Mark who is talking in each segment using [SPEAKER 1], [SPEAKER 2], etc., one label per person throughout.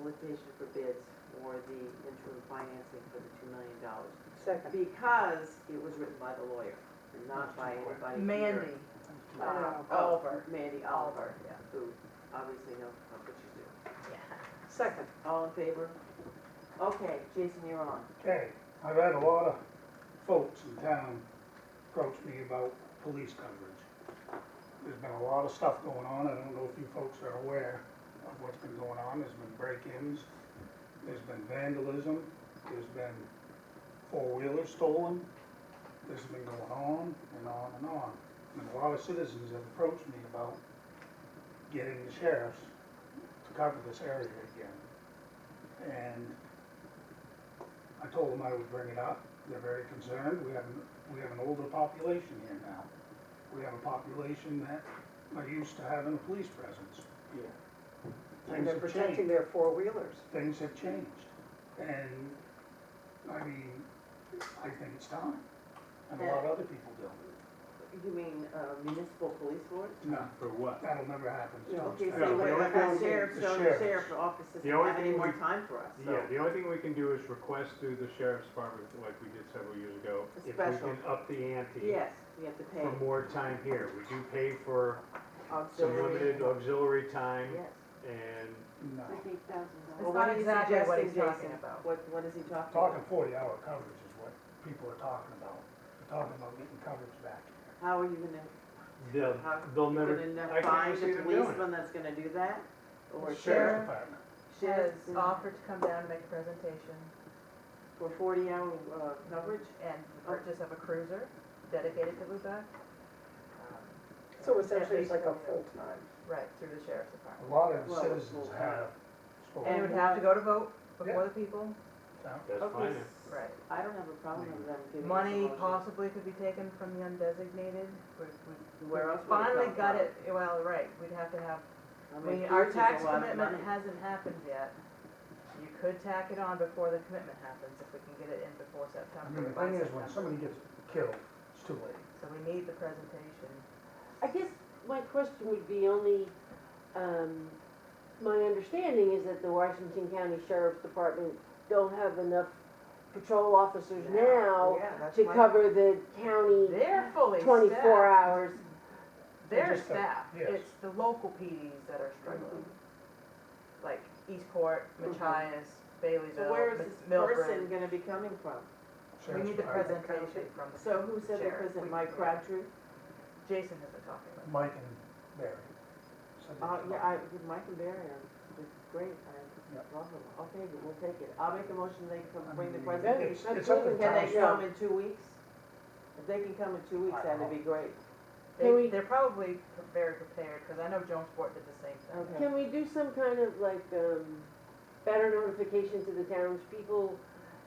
[SPEAKER 1] solicitation for bids for the interim financing for the two million dollars.
[SPEAKER 2] Second.
[SPEAKER 1] Because it was written by the lawyer and not by anybody here.
[SPEAKER 2] Mandy.
[SPEAKER 1] Uh,
[SPEAKER 2] Oh,
[SPEAKER 1] oh,
[SPEAKER 2] Oliver.
[SPEAKER 1] Mandy Oliver, who obviously knows how what she's doing.
[SPEAKER 2] Second.
[SPEAKER 1] All in favor? Okay, Jason, you're on.
[SPEAKER 3] Okay, I've had a lot of folks in town approach me about police coverage. There's been a lot of stuff going on, I don't know if you folks are aware of what's been going on, there's been break-ins, there's been vandalism, there's been four-wheelers stolen, this has been going on and on and on. And a lot of citizens have approached me about getting the sheriffs to cover this area again. And I told them I would bring it up. They're very concerned. We have, an we have an older population here now. We have a population that are used to having a police presence here.
[SPEAKER 2] And
[SPEAKER 3] Things
[SPEAKER 2] they're
[SPEAKER 3] have
[SPEAKER 2] protecting
[SPEAKER 3] changed.
[SPEAKER 2] their four-wheelers.
[SPEAKER 3] Things have changed. And, I mean, I think it's time. And a lot of other people do.
[SPEAKER 1] You mean uh, municipal police board?
[SPEAKER 3] No,
[SPEAKER 4] For what?
[SPEAKER 3] that'll never happen.
[SPEAKER 2] No.
[SPEAKER 1] Okay,
[SPEAKER 4] Yeah,
[SPEAKER 1] so
[SPEAKER 4] the
[SPEAKER 1] wait, I
[SPEAKER 4] only thing-
[SPEAKER 1] got sheriff,
[SPEAKER 3] the
[SPEAKER 1] so the
[SPEAKER 3] sheriff's.
[SPEAKER 1] sheriff office doesn't
[SPEAKER 4] The only
[SPEAKER 1] have any
[SPEAKER 4] thing
[SPEAKER 1] more
[SPEAKER 4] we-
[SPEAKER 1] time for us, so.
[SPEAKER 4] Yeah, the only thing we can do is request through the sheriff's department, like we did several years ago,
[SPEAKER 1] A
[SPEAKER 4] if we
[SPEAKER 1] special.
[SPEAKER 4] can up the ante.
[SPEAKER 1] Yes, we have to pay
[SPEAKER 4] For more time here. We do pay for some
[SPEAKER 1] auxiliary.
[SPEAKER 4] limited auxiliary time
[SPEAKER 1] Yes.
[SPEAKER 4] and
[SPEAKER 3] No.
[SPEAKER 1] It's
[SPEAKER 2] Well,
[SPEAKER 1] not
[SPEAKER 2] what
[SPEAKER 1] easy
[SPEAKER 2] exactly what he's
[SPEAKER 1] suggesting,
[SPEAKER 2] talking
[SPEAKER 1] Jason.
[SPEAKER 2] about.
[SPEAKER 1] What, what is he talking
[SPEAKER 3] Talking
[SPEAKER 1] about?
[SPEAKER 3] forty hour coverage is what people are talking about. They're talking about getting coverage back.
[SPEAKER 1] How are you gonna,
[SPEAKER 4] they'll,
[SPEAKER 1] how,
[SPEAKER 4] they'll
[SPEAKER 1] you're
[SPEAKER 4] never,
[SPEAKER 1] gonna
[SPEAKER 4] I can't
[SPEAKER 1] find
[SPEAKER 4] see
[SPEAKER 1] a
[SPEAKER 4] them doing it.
[SPEAKER 1] policeman that's gonna do that? Or a
[SPEAKER 3] Sheriff's
[SPEAKER 1] sheriff?
[SPEAKER 3] Department.
[SPEAKER 5] has
[SPEAKER 1] Sheriff's in-
[SPEAKER 5] offered to come down and make a presentation
[SPEAKER 1] For forty hour, uh, coverage?
[SPEAKER 5] and the purchase of a cruiser dedicated to Lubec. um,
[SPEAKER 2] So essentially, it's like a full-time.
[SPEAKER 5] Right, through the sheriff's
[SPEAKER 3] A
[SPEAKER 5] department.
[SPEAKER 3] lot of
[SPEAKER 1] Well,
[SPEAKER 3] citizens
[SPEAKER 1] well,
[SPEAKER 3] have
[SPEAKER 5] And it
[SPEAKER 3] spoken
[SPEAKER 5] would have to go to vote before the people.
[SPEAKER 3] out.
[SPEAKER 4] That's
[SPEAKER 1] Okay,
[SPEAKER 4] fine.
[SPEAKER 1] s-
[SPEAKER 5] Right.
[SPEAKER 1] I don't have a problem with them giving us a
[SPEAKER 5] Money
[SPEAKER 1] motion.
[SPEAKER 5] possibly could be taken from the undesignated. We- we-
[SPEAKER 1] Where else would it
[SPEAKER 5] Finally
[SPEAKER 1] come
[SPEAKER 5] got
[SPEAKER 1] from?
[SPEAKER 5] it, well, right, we'd have to have,
[SPEAKER 1] I
[SPEAKER 5] I
[SPEAKER 1] mean,
[SPEAKER 5] mean, our
[SPEAKER 1] cruise is a
[SPEAKER 5] tax
[SPEAKER 1] lot of
[SPEAKER 5] commitment
[SPEAKER 1] money.
[SPEAKER 5] hasn't happened yet. You could tack it on before the commitment happens, if we can get it in before
[SPEAKER 3] I
[SPEAKER 5] September,
[SPEAKER 3] mean, the
[SPEAKER 5] by
[SPEAKER 3] thing is, when
[SPEAKER 5] September.
[SPEAKER 3] somebody gets killed, it's too late.
[SPEAKER 5] So we need the presentation.
[SPEAKER 6] I guess my question would be only, um, my understanding is that the Washington County Sheriff's Department don't have enough patrol officers
[SPEAKER 1] Yeah,
[SPEAKER 6] now
[SPEAKER 5] Yeah, that's
[SPEAKER 6] to
[SPEAKER 5] why-
[SPEAKER 6] cover the county
[SPEAKER 5] They're fully
[SPEAKER 6] twenty-four
[SPEAKER 5] staffed.
[SPEAKER 6] hours.
[SPEAKER 5] Their
[SPEAKER 3] Just the-
[SPEAKER 5] staff,
[SPEAKER 3] yes.
[SPEAKER 5] it's the local PDs that are struggling. Like Eastport, Machias,
[SPEAKER 1] So where
[SPEAKER 5] Baileyville,
[SPEAKER 1] is
[SPEAKER 5] Mi-
[SPEAKER 1] this person
[SPEAKER 5] Milford.
[SPEAKER 1] gonna be coming from?
[SPEAKER 5] We
[SPEAKER 3] Sheriff's
[SPEAKER 5] need the
[SPEAKER 3] Department.
[SPEAKER 5] presentation from the
[SPEAKER 1] So who said it
[SPEAKER 5] Sheriff.
[SPEAKER 1] was in
[SPEAKER 5] We-
[SPEAKER 1] Mike Crabtree?
[SPEAKER 5] Jason has been talking about
[SPEAKER 3] Mike and Barry. said
[SPEAKER 1] Uh,
[SPEAKER 3] that.
[SPEAKER 1] yeah, I, with Mike and Barry are, it's great, I
[SPEAKER 3] Yep.
[SPEAKER 1] love them, okay, but we'll take it, I'll make a motion they can
[SPEAKER 3] I
[SPEAKER 1] bring the
[SPEAKER 3] mean,
[SPEAKER 1] presentation.
[SPEAKER 3] It's it's up to
[SPEAKER 1] Can they
[SPEAKER 3] town.
[SPEAKER 1] come in two weeks? If they can come in two weeks,
[SPEAKER 3] I
[SPEAKER 1] that'd be great.
[SPEAKER 5] it.
[SPEAKER 6] Can
[SPEAKER 5] They,
[SPEAKER 6] we-
[SPEAKER 5] they're probably pre- very prepared, because I know Jonesport did the same thing.
[SPEAKER 1] Okay.
[SPEAKER 6] Can we do some kind of like, um, better notification to the townspeople?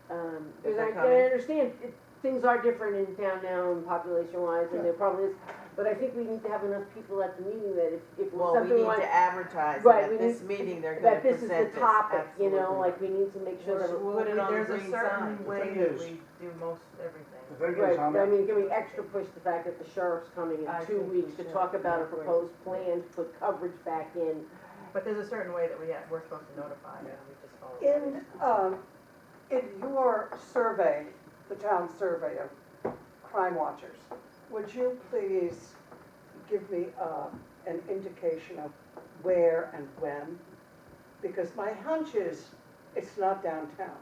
[SPEAKER 6] Um,
[SPEAKER 1] Is
[SPEAKER 6] cause I,
[SPEAKER 1] that
[SPEAKER 6] I
[SPEAKER 1] coming?
[SPEAKER 6] understand, it, things are different in town now and population wise and there probably is, but I think we need to have enough people at the meeting that if, if
[SPEAKER 1] Well, we
[SPEAKER 6] something
[SPEAKER 1] need
[SPEAKER 6] like
[SPEAKER 1] to advertise,
[SPEAKER 6] Right,
[SPEAKER 1] that
[SPEAKER 6] we
[SPEAKER 1] at this
[SPEAKER 6] need-
[SPEAKER 1] meeting, they're gonna
[SPEAKER 6] that this is
[SPEAKER 1] present this,
[SPEAKER 6] the topic, you know,
[SPEAKER 1] absolutely.
[SPEAKER 6] like we need to make sure that
[SPEAKER 1] Sure.
[SPEAKER 6] we're.
[SPEAKER 1] We'll put it on the green sign.
[SPEAKER 5] There's a certain
[SPEAKER 3] The
[SPEAKER 5] way
[SPEAKER 3] thing
[SPEAKER 5] that
[SPEAKER 3] is-
[SPEAKER 5] we do most everything.
[SPEAKER 3] The thing is,
[SPEAKER 6] Right,
[SPEAKER 3] I'm,
[SPEAKER 6] but I mean, can we extra push the fact that the sheriff's coming
[SPEAKER 1] I
[SPEAKER 6] in two
[SPEAKER 1] think we
[SPEAKER 6] weeks to
[SPEAKER 1] should.
[SPEAKER 6] talk about a
[SPEAKER 1] I agree.
[SPEAKER 6] proposed plan to put coverage back in?
[SPEAKER 5] But there's a certain way that we, have- we're supposed to notify, and we just follow.
[SPEAKER 2] In, um, in your survey, the town survey of crime watchers, would you please give me, uh, an indication of where and when? Because my hunch is, it's not downtown,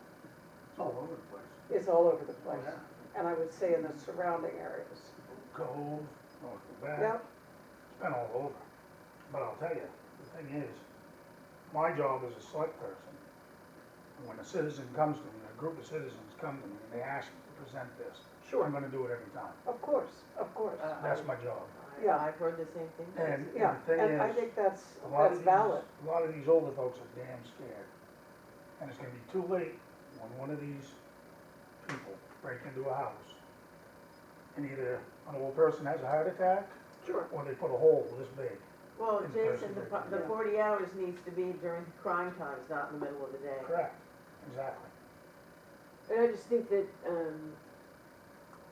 [SPEAKER 3] it's all over the place.
[SPEAKER 2] it's all over the place,
[SPEAKER 3] Yeah.
[SPEAKER 2] and I would say in the surrounding areas.
[SPEAKER 3] Cove, North Quebec,
[SPEAKER 2] Yep,
[SPEAKER 3] it's been all over. But I'll tell you, the thing is, my job as a select person, when a citizen comes to me, a group of citizens come to me and they ask me to present this, I'm
[SPEAKER 2] sure,
[SPEAKER 3] gonna do it every time.
[SPEAKER 2] of course, of course.
[SPEAKER 1] Uh,
[SPEAKER 3] That's my job.
[SPEAKER 2] Yeah.
[SPEAKER 1] I've heard the same thing.
[SPEAKER 3] And and
[SPEAKER 2] Yeah,
[SPEAKER 3] the thing
[SPEAKER 2] and I
[SPEAKER 3] is,
[SPEAKER 2] think that's,
[SPEAKER 3] a lot
[SPEAKER 2] that's
[SPEAKER 3] of these,
[SPEAKER 2] valid.
[SPEAKER 3] a lot of these older folks are damn scared. And it's gonna be too late when one of these people break into a house. And either an old person has a heart attack,
[SPEAKER 2] Sure.
[SPEAKER 3] or they put a hole this big.
[SPEAKER 1] Well,
[SPEAKER 3] In
[SPEAKER 1] Jason,
[SPEAKER 3] person,
[SPEAKER 1] the, pro- the
[SPEAKER 2] yeah.
[SPEAKER 1] forty hours needs to be during crime times, not in the middle of the day.
[SPEAKER 3] Correct, exactly.
[SPEAKER 6] And I just think that, um,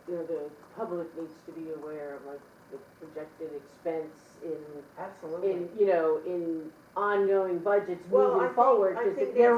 [SPEAKER 6] you know, the public needs to be aware of like the projected expense in,
[SPEAKER 1] Absolutely.
[SPEAKER 6] in, you know, in ongoing budgets
[SPEAKER 1] Well, I
[SPEAKER 6] moving
[SPEAKER 1] think-
[SPEAKER 6] forward.
[SPEAKER 1] I
[SPEAKER 6] 'cause if
[SPEAKER 1] think
[SPEAKER 6] they're